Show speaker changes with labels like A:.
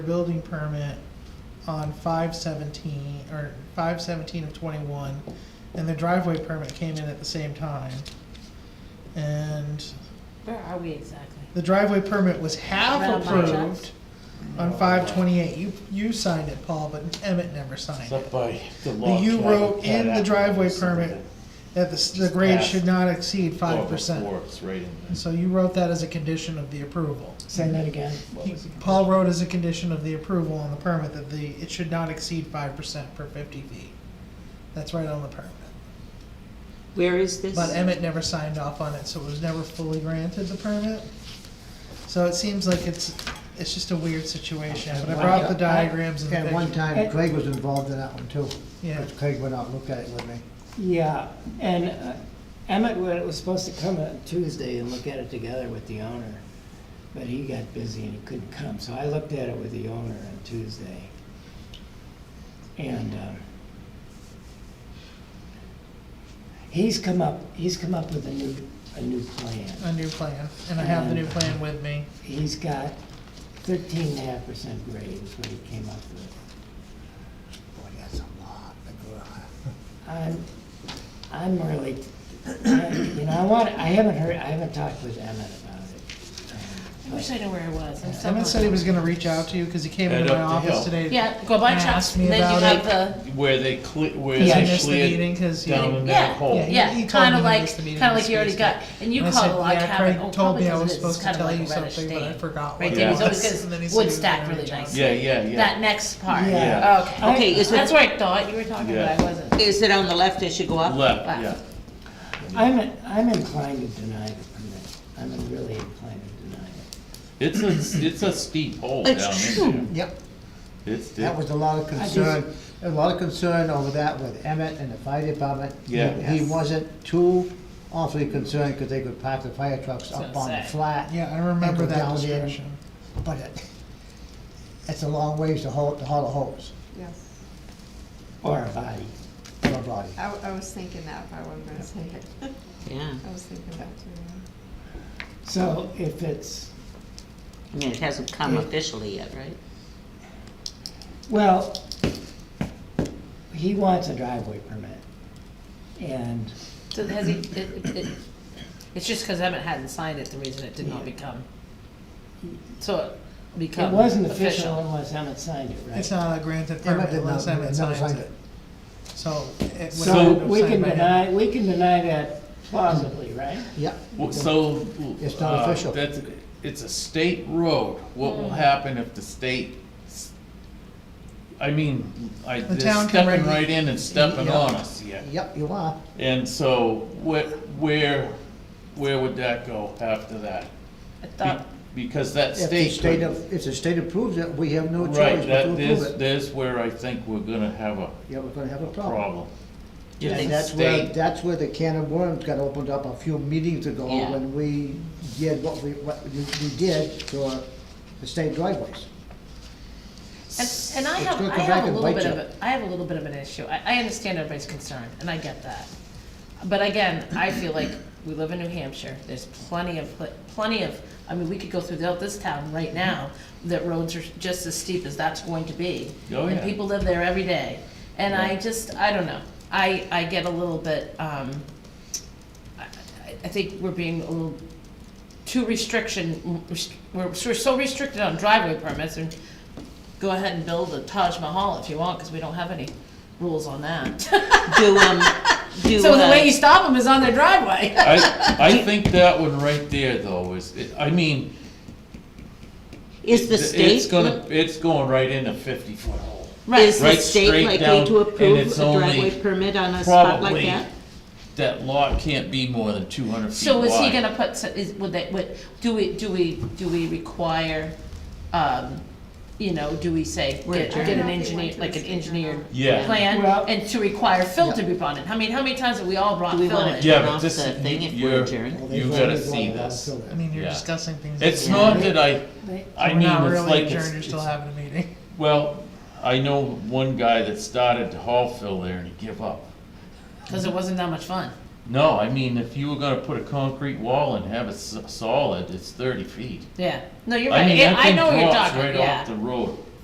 A: building permit on five seventeen, or five seventeen of twenty-one, and the driveway permit came in at the same time. And
B: Where are we exactly?
A: the driveway permit was half
B: Round by
A: approved
B: chance.
A: on five twenty-eight. You, you signed it, Paul, but Emmett never signed
C: Except
A: it.
C: by the law.
A: But you
C: Chad-
A: wrote
C: Chad
A: in the
C: Apple
A: driveway
C: said
A: permit
C: that-
A: That the, s- the grade
C: Half.
A: should not exceed
C: Well,
A: five percent.
C: before, It's right in there.
A: So you wrote that as a condition of the approval.
D: Say that again.
A: He- Paul wrote as a condition of the approval on the permit that the, it should not exceed five percent per fifty feet. That's right on the permit.
B: Where is this?
A: But Emmett never signed off on it, so it was never fully granted the permit. So it seems like it's, it's just a weird situation, but I brought the diagrams and the
E: At one
A: pictures.
E: time, Craig was involved in that one too.
A: Yeah,
E: Because Craig went out and looked at it with me.
D: Yeah, and uh, Emmett wa- was supposed to come on Tuesday and look at it together with the owner, but he got busy and he couldn't come, so I looked at it with the owner on Tuesday. And, um, he's come up, he's come up with a new, a new plan.
A: a new plan, and I have the
E: Mm.
A: new plan with me.
D: He's got thirteen and a half percent grade is what he came up with.
E: Boy, that's a lot. of gra-
D: I'm, I'm really, you know, I want, I haven't heard, I haven't talked with Emmett about it. um,
B: I wish I knew where I was. I'm
A: Emmett said he was gonna reach out to you, cause he came into
C: Head
A: my
C: up
A: office
C: the hill.
A: today.
B: Yeah, go by
A: and
B: Chuck's,
A: asked me
B: and then you
A: about
B: have
A: it.
B: the,
C: Where they cle, where
D: Yeah.
A: I
C: they
A: missed the
C: cleared
A: meeting, cause he
C: down in that
B: yeah,
C: hole.
A: Yeah, he-
B: yeah,
A: he told
B: kinda
A: me he
B: like,
A: missed the meeting
B: kinda like
A: and
B: you already
A: spaced
B: got, and you
A: And I
B: called
A: said,
B: a log
A: "Yeah,
B: cabin,
A: Craig
B: oh,
A: told
B: probably
A: me I was
B: because it is,
A: supposed
B: it's
A: to
B: kinda
A: tell
B: like
A: you
B: a reddish
A: something, but I
B: stain.
A: forgot what
B: Right
C: it
B: there, he's
C: was.
B: always
A: And
B: got
A: then he
B: his
A: said he
B: wood
A: was
B: stacked
A: gonna
B: really
A: reach out.
B: nicely.
C: Yeah, yeah, yeah.
B: That next part.
D: Yeah.
B: Okay,
F: Okay, is
B: that's
F: it,
B: where I thought you were talking,
C: Yeah.
B: but I wasn't.
F: is it on the left as you go up?
C: Left,
B: Left.
C: yeah.
D: I'm, I'm inclined to deny the permit. I'm really inclined to deny it.
C: It's a, it's a steep hole down
F: It's
C: in there.
E: Yep,
C: It's,
E: that
C: it-
E: was a lot of
D: just-
E: concern, a lot of concern over that with Emmett and the fire department. He-
C: Yeah.
E: He wasn't too awfully concerned because they could park the fire trucks up
B: That's what
E: on
B: I'm
E: the
B: saying.
E: flat.
A: Yeah, I remember
E: And
A: that
E: go down there.
A: discussion.
E: But it, it's a long ways to haul, to haul a hose
G: Yeah,
D: Or a body.
E: for a body.
G: I, I was thinking that, but I wasn't gonna say it.
F: Yeah,
G: I was thinking that too.
D: So if it's,
F: I mean, it hasn't come officially yet, right?
D: well, he wants a driveway permit. And,
B: So has he, it, it- it, it's just because Emmett hadn't signed it, the reason it did not
D: Yeah.
B: become, so it
D: it
B: become
D: wasn't official unless Emmett signed it, right?
A: It's not a granted
E: Emmett
A: permit
E: did not,
A: unless Emmett
E: never
A: signs
E: signed
A: it,
E: it.
A: so. it would
D: So
A: have to have
D: we can
A: signed by him.
D: deny, we can deny that plausibly, right?
E: Yep.
C: well, so.
E: It's not
C: uh,
E: official.
C: That's, it's a state road. What
B: Hmm.
C: will happen if the state, s- I mean, I,
A: The
C: they're
A: town can
C: stepping
A: regu-
C: right in and stepping
E: Yeah.
C: on us, yeah.
E: Yep, you are.
C: And so where, where, where would that go after that?
B: I
C: Be-
B: thought,
C: Because that
E: If the
C: state.
E: state
C: could-
E: of, if the state approves it, we have no choice
C: Right,
E: but to
C: that
E: approve
C: is,
E: it.
C: there's where I think we're gonna have a
E: Yeah, we're gonna have a problem.
C: problem.
F: Do
E: And
F: they-
E: that's where,
C: state-
E: that's where the can of worms got opened up a few meetings ago
F: Yeah.
E: when we did what we, what we we did to our, the state driveways.
B: and, and I
E: It's
B: have,
E: gonna
B: I
E: come back
B: have a
E: and
B: little
E: bite
B: bit
E: you.
B: of, a- I have a little bit of an issue, I, I understand everybody's concern, and I get that. But again, I feel like we live in New Hampshire, there's plenty of, pla- plenty of, I mean, we could go throughout this town right now, that roads are just as steep as that's going to be.
C: Oh,
B: And
C: yeah.
B: people live there every day, and I
C: Yeah.
B: just, I don't know, I, I get a little bit, um, I, I- I think we're being a little too restriction, rest- we're, we're so restricted on driveway permits, and go ahead and build a Taj Mahal if you want, because we don't have any rules on that.
F: Do, um, do,
B: So the way you
F: uh,
B: stop them is on their driveway.
C: I, I think that one right there though is, I mean,
F: is the
C: it's
F: state,
C: gonna, it's going right in a fifty foot hole.
F: is the
C: right straight
F: state
C: down,
F: likely to
C: and
F: approve a
C: it's only
F: driveway permit on a spot like
C: Probably,
F: that?
C: that lot can't be more than two hundred feet
B: So
C: wide.
B: is he gonna put, s- is, would they, would, do we, do we, do we require, um, you know, do we say,
F: We're
B: get, get
G: adjourned.
B: an engineer, like an engineered
C: Yeah.
B: plan?
D: Well-
B: And to require Phil to be brought in, I mean, how many times have we all brought
F: Do we
B: Phil
F: wanna
B: in?
C: Yeah,
F: turn
C: but
F: off the
C: this-
F: thing if
C: you're-
F: we're adjourned?
E: Well, they've
C: You gotta
E: already
C: see
E: gone
C: this.
E: through it.
A: I mean, you're
C: Yeah.
A: discussing things. that
C: It's
A: you-
C: not that I, I
A: We're
C: mean,
A: not
C: it's
A: really
C: like,
A: adjourned, you're
C: it's,
A: still
C: it's-
A: having a meeting.
C: well, I know one guy that started to haul fill there and he give up.
B: Cause it wasn't that much fun.
C: No, I mean, if you were gonna put a concrete wall and have it s- solid, it's thirty feet.
B: Yeah, no, you're
C: I
B: right,
C: mean,
B: Yeah,
C: that
B: I
C: thing
B: know what you're
C: drops
B: talking,
C: right off the
B: yeah,
C: road.